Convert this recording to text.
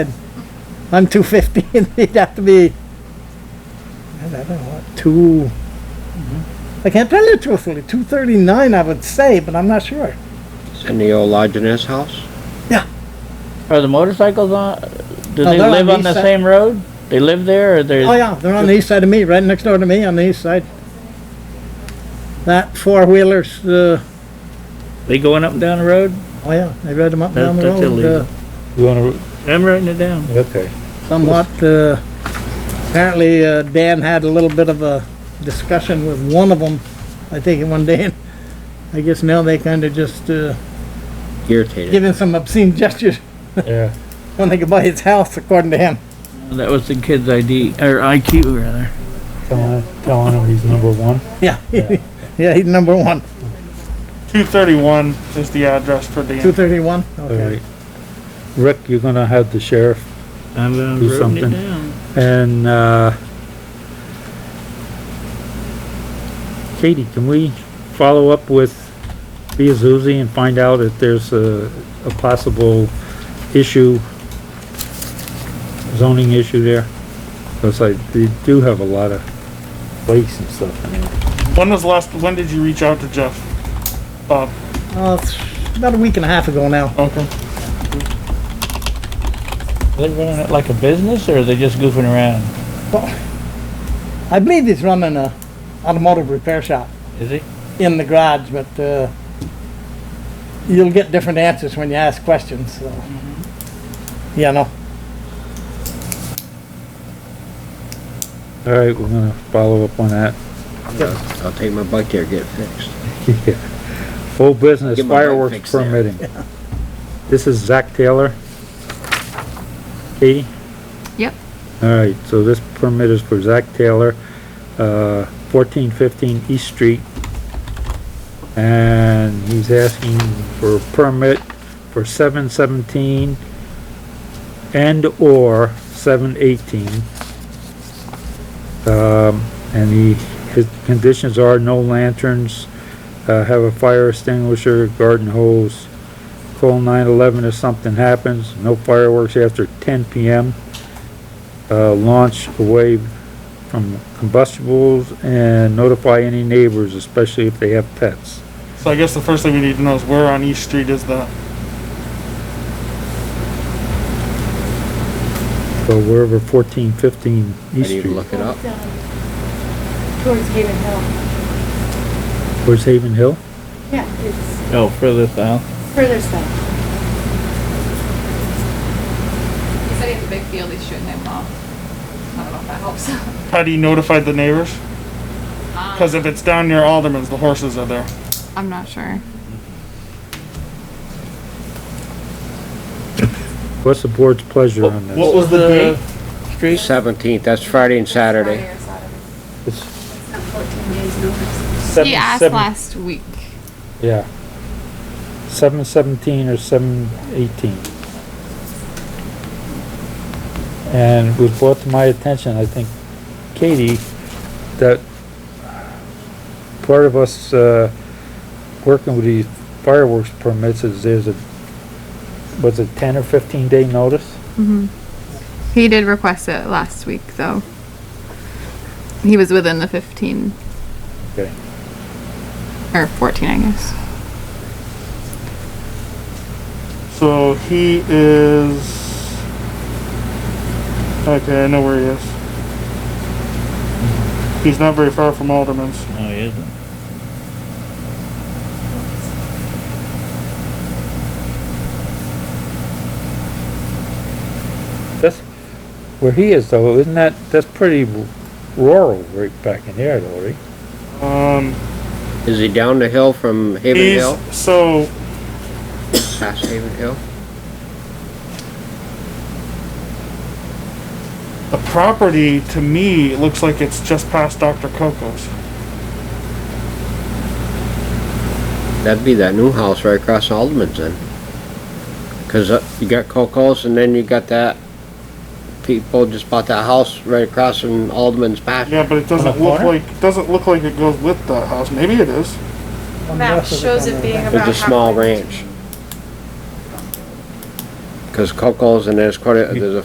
I'm two fifty, and he'd have to be, I don't know, what, two. Mm-hmm. I can't tell you truthfully, two thirty-nine I would say, but I'm not sure. In the old Lodgeness house? Are the motorcycles on, do No, they they're on live the on the east side. same road? They live there or Oh, they're, yeah, they're on the east side of me, right next door to me, on the east side. That four-wheeler's, uh, they going up and down the road? oh, yeah, they ride them up and That- down the that's road, illegal. uh, You wanna, I'm writing it down. okay. somewhat, uh, apparently, uh, Dan had a little bit of a discussion with one of them, I think, one day, and I guess now they kinda just, uh, Irritated. giving some obscene gestures Yeah. when they could buy his house, according to him. That was the kid's ID, or IQ rather. Telling, telling him he's number one. Yeah, yeah, he's number one, Two thirty-one is the address for two Dan. thirty-one, All okay. right. Rick, you're gonna have the sheriff I'm uh, Do writing it something. down. and, uh, Katie, can we follow up with Beazuzzi and find out if there's a, a possible issue, zoning issue there? Cause I, they do have a lot of lakes and stuff in there. When was last, when did you reach out to Jeff? Bob, Uh, it's about a week and a half ago now. okay. Are they running it like a business or are they just goofing around? I believe he's running a automotive repair shop Is he? in the garage, but, uh, you'll get different answers when you ask questions, so. Yeah, no, All right, we're gonna follow up on that. I'll I'll take my bike there, get it fixed. Yeah. Full business Get my light fireworks fixed there. permitting. This is Zach Taylor. Katie? Yep. Alright, so this permit is for Zach Taylor, uh, fourteen fifteen East Street. And he's asking for a permit for seven seventeen and/or seven eighteen. Um, and he, his conditions are no lanterns, uh, have a fire extinguisher, garden hose. Call nine eleven if something happens, no fireworks after ten PM. Uh, launch away from combustibles and notify any neighbors, especially if they have pets. So I guess the first thing we need to know is where on East Street is that? So wherever fourteen fifteen I East need to Street, look it up. um, Towards Haven Hill. towards Haven Hill, Yeah, it's Oh, further south. further south. He said he has a big field, he's shooting them off. I don't know if that helps. How do you notify the neighbors? Um, Cause if it's down near Alderman's, the horses are there. I'm not sure. what's the board's pleasure on What this? was the date? Street? Seventeenth, that's Friday and Saturday. Friday or Saturday. It's Fourteen days notice. seven- He asked seven- last week. Yeah. Seven seventeen or seven eighteen. And it was brought to my attention, I think, Katie, that part of us, uh, working with these fireworks permits is there's a, was it ten or fifteen day notice? Mm-hmm. He did request it last week, though. He was within the 15 Okay. or 14, I guess. So he is. Okay, I know where he is. He's not very far from Alderman's. No, he isn't. That's where he is though, isn't that, that's pretty rural right back in there though, right? Um, Is he down the hill from Haven he's Hill? so Past Haven Hill? the property to me looks like it's just past Dr. Coco's. That'd be that new house right across Alderman's then. Cause uh, you got Coco's and then you got that, people just bought that house right across from Alderman's pasture. Yeah, but it doesn't look corner? like doesn't look like it goes with that house. Maybe it is. Map shows it being It's a small ranch. Cause Coco's and there's quite a, there's a